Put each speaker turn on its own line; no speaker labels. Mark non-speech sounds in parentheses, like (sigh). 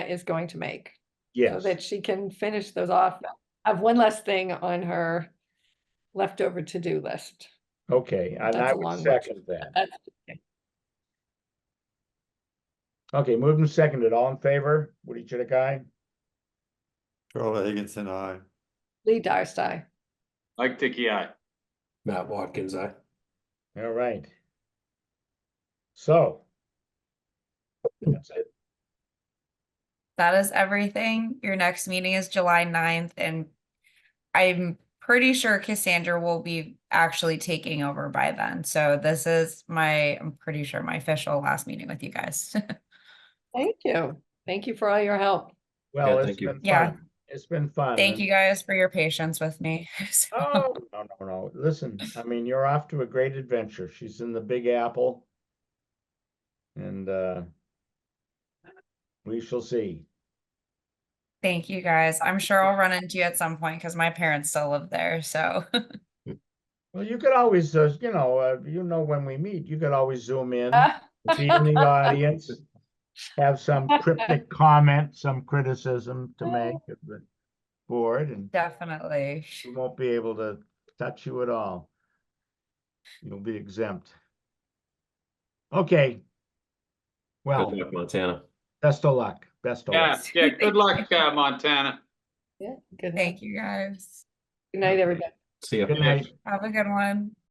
is going to make. so
Yes,
That she can finish those off. I have one last thing on her leftover to-do list.
okay, and
That's
I
a
would
long one.
second that.
That's-
Okay, moved and seconded, all in favor, Woody Chitik, aye?
Charlie Higginson, aye.
Lee Darcey.
Mike Dickey, aye.
Matt Watkins, I.
All right. So. That's it,
that is everything. Your next meeting is July 9th, and I'm pretty sure Cassandra will be actually taking over by then. So this is my, I'm pretty sure my official last meeting with you guys. (laughs)
Thank you. Thank you for all your help.
well, it's
thank you.
been
Yeah.
fun, it's been fun.
Thank
and-
you guys for your patience with me. (laughs) So-
Oh, no, no, no, listen, I mean, you're off to a great adventure, she's in the Big Apple. And, uh. We shall see,
Thank you guys. I'm sure I'll run into you at some point because my parents still live there. So (laughs)
well, you could always, uh, you know, uh, you know, when we meet, you could always zoom in.
Ah,
be in the audience, have some cryptic comment, some criticism to make of the board, and
definitely.
we won't be able to touch you at all. You'll be exempt. Okay. Well,
Good luck, Montana.
best of luck, best of
Yeah,
luck.
yeah, good luck, uh, Montana.
Yeah, good night.
Thank you guys.
Good night, everybody.
See ya.
Good night.
Have a good one.